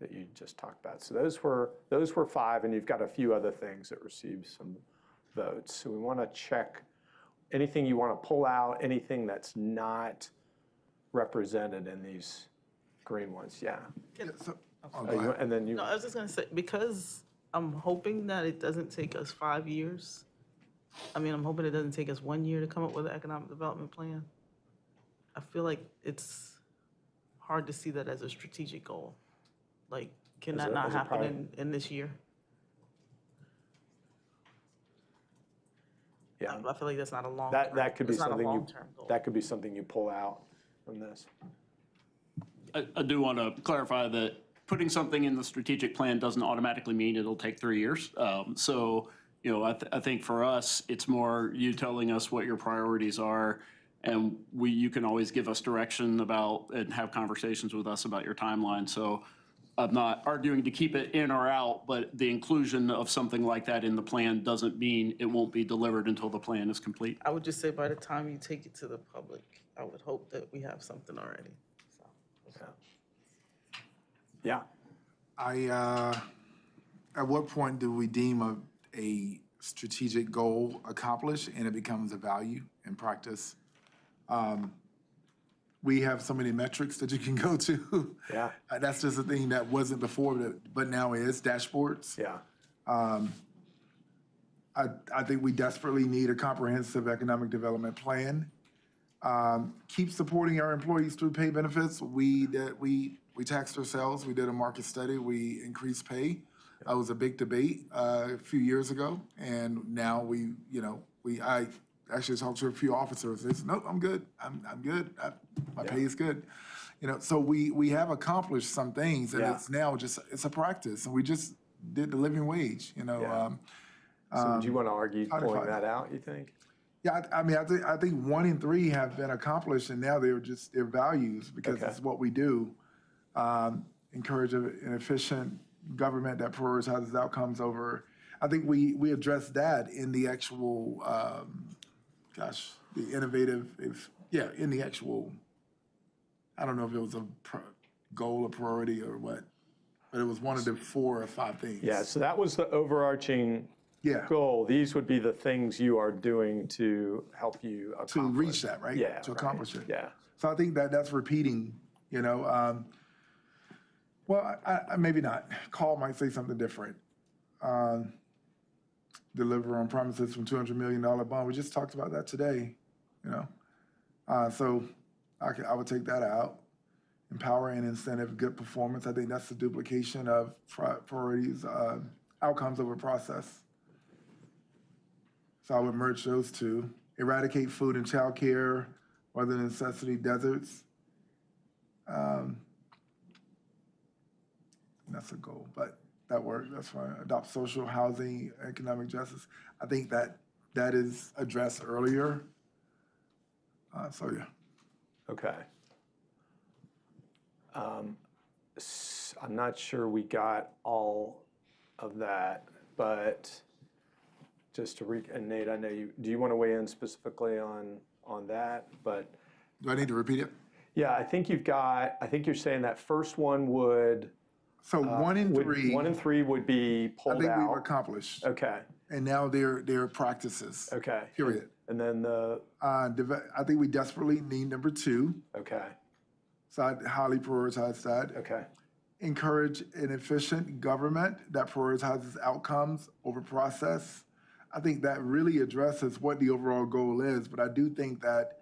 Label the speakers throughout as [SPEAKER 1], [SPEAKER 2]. [SPEAKER 1] that you just talked about. So those were, those were five, and you've got a few other things that received some votes. So we want to check anything you want to pull out, anything that's not represented in these green ones, yeah. Uh, you- And then you,
[SPEAKER 2] No, I was just gonna say, because I'm hoping that it doesn't take us five years. I mean, I'm hoping it doesn't take us one year to come up with an economic development plan. I feel like it's hard to see that as a strategic goal. Like, can
[SPEAKER 1] As
[SPEAKER 2] that
[SPEAKER 1] a-
[SPEAKER 2] not
[SPEAKER 1] as a
[SPEAKER 2] happen
[SPEAKER 1] prior-
[SPEAKER 2] in, in this year? I
[SPEAKER 1] yeah,
[SPEAKER 2] I feel like that's not a long.
[SPEAKER 1] that, that could be something you,
[SPEAKER 2] It's not a long-term goal.
[SPEAKER 1] that could be something you pull out from this.
[SPEAKER 3] I, I do want to clarify that putting something in the strategic plan doesn't automatically mean it'll take three years. Um, so, you know, I, th- I think for us, it's more you telling us what your priorities are. And we, you can always give us direction about and have conversations with us about your timeline. So I'm not arguing to keep it in or out, but the inclusion of something like that in the plan doesn't mean it won't be delivered until the plan is complete.
[SPEAKER 2] I would just say by the time you take it to the public, I would hope that we have something already, so.
[SPEAKER 1] Yeah,
[SPEAKER 4] I, uh, at what point do we deem a, a strategic goal accomplished and it becomes a value in practice? Um, We have so many metrics that you can go to.
[SPEAKER 1] Yeah.
[SPEAKER 4] Uh, That's just a thing that wasn't before, but- but now is dashboards.
[SPEAKER 1] yeah,
[SPEAKER 4] I, I think we desperately need a comprehensive economic development plan. Um, keep supporting our employees through pay benefits. We did, we, we taxed ourselves. We did a market study. We increased pay. That was a big debate uh, a few years ago, and now we, you know, we I actually talked to a few officers. They said, "Nope, I'm good. I'm I'm good. I, my pay is good." You know, so we we have accomplished some things, and
[SPEAKER 1] Yeah.
[SPEAKER 4] it's now just it's a practice, and we just did the living wage. You know.
[SPEAKER 1] Yeah.
[SPEAKER 4] Um,
[SPEAKER 1] so do you want to argue pulling
[SPEAKER 4] codified.
[SPEAKER 1] that out, you think?
[SPEAKER 4] yeah, I, I mean, I think I think one and three have been accomplished, and now they're just their values because
[SPEAKER 1] Okay.
[SPEAKER 4] it's what we do. Um, encourage a- an efficient government that prioritizes outcomes over. I think we we address that in the actual, um, gosh, the innovative. If yeah, in the actual. I don't know if it was a pro- goal or priority or what, but it was one of the four or five things.
[SPEAKER 1] Yeah, so that was the overarching
[SPEAKER 4] Yeah.
[SPEAKER 1] goal. These would be the things you are doing to help you
[SPEAKER 4] To
[SPEAKER 1] accomplish.
[SPEAKER 4] reach that, right?
[SPEAKER 1] Yeah,
[SPEAKER 4] To
[SPEAKER 1] right.
[SPEAKER 4] accomplish it.
[SPEAKER 1] Yeah,
[SPEAKER 4] So I think that that's repeating, you know. Um, well, I, I, maybe not. Call might say something different. Um, deliver on promises from two hundred million dollar bond. We just talked about that today, you know. Uh, so I could, I would take that out. Empower and incentive good performance. I think that's the duplication of pri- priorities, uh, outcomes over process. So I would merge those two. Eradicate food and childcare, other necessity deserts. Um, That's a goal, but that works, that's fine. Adopt social housing, economic justice. I think that, that is addressed earlier. Uh, so yeah,
[SPEAKER 1] okay. Um, s- I'm not sure we got all of that, but just to re, and Nate, I know you, do you want to weigh in specifically on, on that? But
[SPEAKER 4] do I need to repeat it?
[SPEAKER 1] yeah, I think you've got, I think you're saying that first one would. uh,
[SPEAKER 4] So one in
[SPEAKER 1] would-
[SPEAKER 4] three,
[SPEAKER 1] One
[SPEAKER 4] I
[SPEAKER 1] and three would be pulled
[SPEAKER 4] think we've
[SPEAKER 1] out.
[SPEAKER 4] accomplished,
[SPEAKER 1] Okay,
[SPEAKER 4] and now they're, they're practices,
[SPEAKER 1] okay.
[SPEAKER 4] period.
[SPEAKER 1] And then the,
[SPEAKER 4] Uh, deve- I think we desperately need number two,
[SPEAKER 1] okay,
[SPEAKER 4] so I highly prioritize that.
[SPEAKER 1] okay,
[SPEAKER 4] encourage an efficient government that prioritizes outcomes over process. I think that really addresses what the overall goal is, but I do think that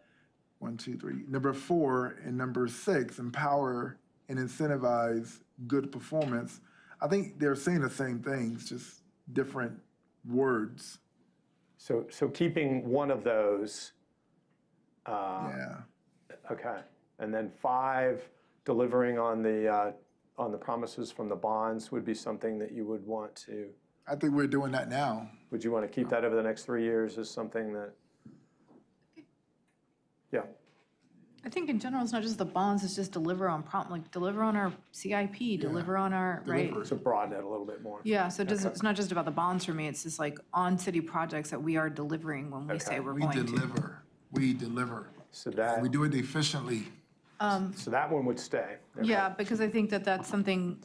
[SPEAKER 4] one, two, three, number four and number six, empower and incentivize good performance. I think they're saying the same things, just different words.
[SPEAKER 1] so, so keeping one of those. uh,
[SPEAKER 4] Yeah.
[SPEAKER 1] Okay, and then five, delivering on the, uh, on the promises from the bonds would be something that you would want to,
[SPEAKER 4] I think we're doing that now.
[SPEAKER 1] would you want to keep that over the next three years as something that? Yeah,
[SPEAKER 5] I think in general, it's not just the bonds, it's just deliver on prompt, like deliver on our CIP, deliver on our, right?
[SPEAKER 4] Deliver.
[SPEAKER 1] so broaden it a little bit more.
[SPEAKER 5] Yeah, so it doesn't, it's not just about the bonds for me, it's just like on city projects that we are delivering when we
[SPEAKER 1] Okay.
[SPEAKER 5] say we're
[SPEAKER 4] We
[SPEAKER 5] going to.
[SPEAKER 4] deliver, we deliver.
[SPEAKER 1] So that,
[SPEAKER 4] We do it efficiently.
[SPEAKER 1] so that one would stay. Okay.
[SPEAKER 5] Yeah, because I think that that's something